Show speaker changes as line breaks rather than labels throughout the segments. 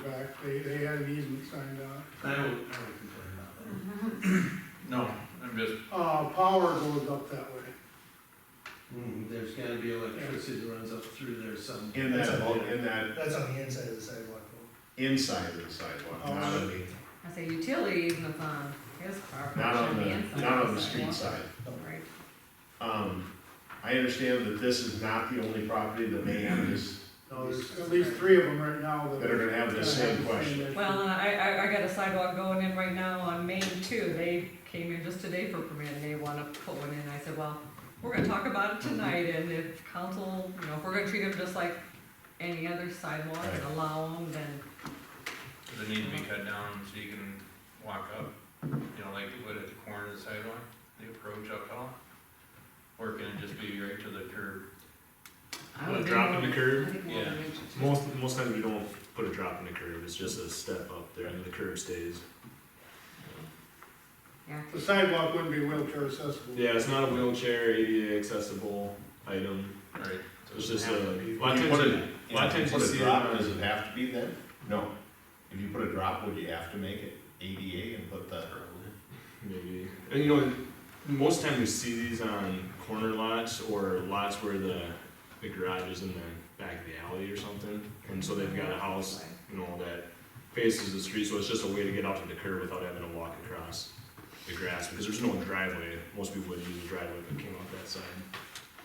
back, they, they had an easement signed out.
I don't, I don't complain about that. No, I'm just,
Uh, power goes up that way.
mm, there's gotta be electricity that runs up through there some.
In
That's
that,
a bit.
in that,
That's on the inside of the sidewalk.
inside of the sidewalk, not on the,
I say utility easements on his property.
not on
should be
the,
inside
not on the street
sidewalk.
side.
Right.
Um, I understand that this is not the only property that may have this,
No, there's at least three of them right now that.
that are gonna have the same question.
issue.
Well, and I, I, I got a sidewalk going in right now on Main too, they came in just today for a permit, and they wanna put one in, I said, well, we're gonna talk about it tonight, and if council, you know, if we're gonna treat them just like any other sidewalk and
Right.
allow them, then,
Does it need to be cut down so you can walk up, you know, like they would at the corner of the sidewalk, the approach up hill? Or can it just be right to the curb?
I
Well,
would.
drop in the curb?
Yeah.
Most most times you don't put a drop in the curb. It's just a step up there, and the curb stays.
Yeah,
The sidewalk wouldn't be wheelchair accessible.
Yeah, it's not a wheelchair ADA accessible item.
Right.
It's just a lot
If
of
you put
times.
a-
You, a lot of
if you
times you
put a
see it.
drop,
on-
does it have to be then? No. If you put a drop, would you have to make it ADA and put the?
Maybe. And you know, most time we see these on corner lots or lots where the the garage is in the back of the alley or something, and so they've got a house, you know, that faces the street, so it's just a way to get out to the curb without having to walk across the grass because there's no driveway. Most people would use a driveway if it came off that side.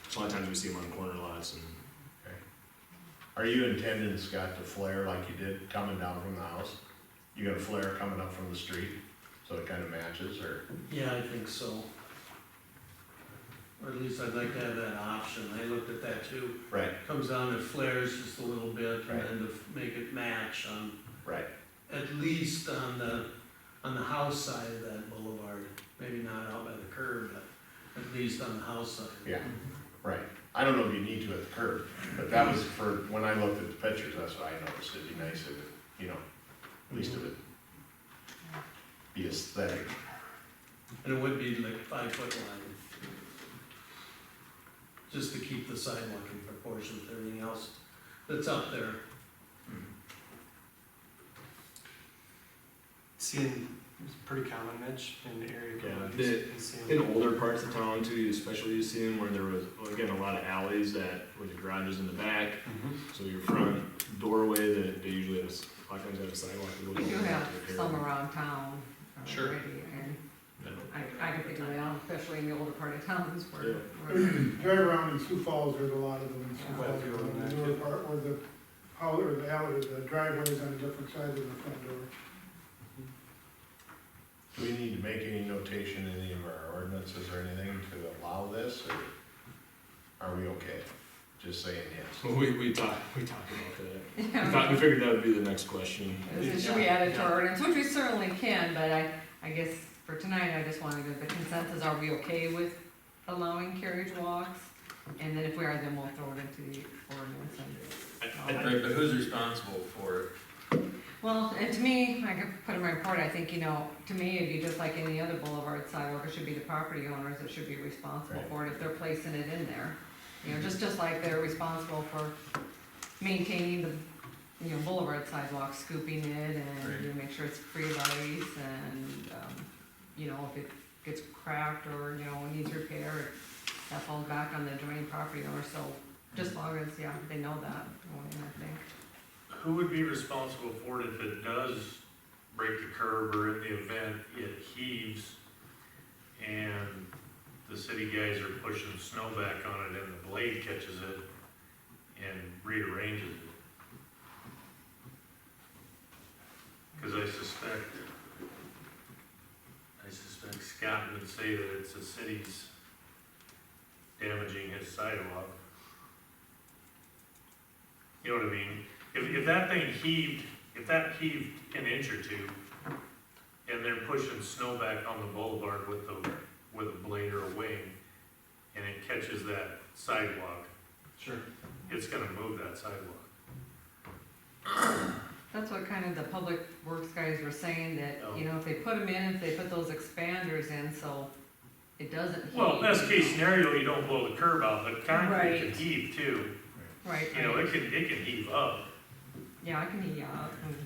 So a lot of times we see them on corner lots and.
Are you intending, Scott, to flare like you did coming down from the house? You got a flare coming up from the street, so it kinda matches, or?
Yeah, I think so. Or at least I'd like to have that option, I looked at that too.
Right,
Comes down, it flares just a little bit, and
Right.
then to f- make it match on,
right.
at least on the, on the house side of that boulevard. Maybe not out by the curb, but at least on the house side.
Yeah. Right, I don't know if you need to at the curb, but that was for, when I looked at the pictures, that's what I noticed, it'd be nice if it, you know, at least if it be aesthetic.
And it would be like five foot line. Just to keep the sidewalk in proportion with everything else that's up there.
Seeing, it's pretty common, Mitch, in the area.
Yeah,
codes,
the-
and seeing-
In older parts of town too, you especially you see them where there was, well, again, a lot of alleys that, where the garage is in the back,
Mhm.
so your front doorway, that they usually have, a s- a lot of times have a sidewalk. that goes
we do
all the way
have
up to the curb.
some around town
Sure.
uh, already, and I, I can figure it out, especially in the older part of towns where.
Yeah.
where-
Drive around in Sioux Falls, there's a lot of them in Sioux
Quite a few of them,
Falls. The
yeah.
newer part where the, how, or the alley, the driveway's on a different side than the front door.
Do we need to make any notation in any of our ordinances or anything to allow this, or are we okay? Just saying yes.
We, we talked, we talked about that.
Yeah.
We thought, we figured that would be the next question.
Is it- Should we add it to our ordinance, which we certainly can, but I, I guess for tonight, I just wanted to- the consensus, are we okay with allowing carriage walks? And then if we are, then we'll throw it into the ordinance and,
I- I-
Right, but who's responsible for it?
well, and to me, I could put in my report, I think, you know, to me, it'd be just like any other boulevard sidewalk, it should be the property owners that should be responsible
Right.
for it if they're placing it in there. You know, just, just like they're responsible for maintaining the, you know, boulevard sidewalk, scooping it and you know, make sure it's free of ice and, um, you know, if it gets cracked or, you know, needs repair, that falls back on the adjoining property owner, so just long as, yeah, they know that, going in, I think.
Who would be responsible for it if it does break the curb or in the event it heaves and the city guys are pushing snow back on it and the blade catches it and rearranges it? Cause I suspect, I suspect Scott would say that it's the city's damaging his sidewalk. You know what I mean? If, if that thing heaved, if that heaved an inch or two, and they're pushing snow back on the boulevard with the, with a blade or a wing, and it catches that sidewalk,
Sure.
it's gonna move that sidewalk.
That's what kind of the public works guys were saying, that,
Oh.
you know, if they put them in, if they put those expanders in, so it doesn't heat.
Well, best case scenario, you don't blow the curb out, but concrete can
Right.
heave too,
Right,
you know,
right.
it can, it can heave up.
yeah, I can heat you up, and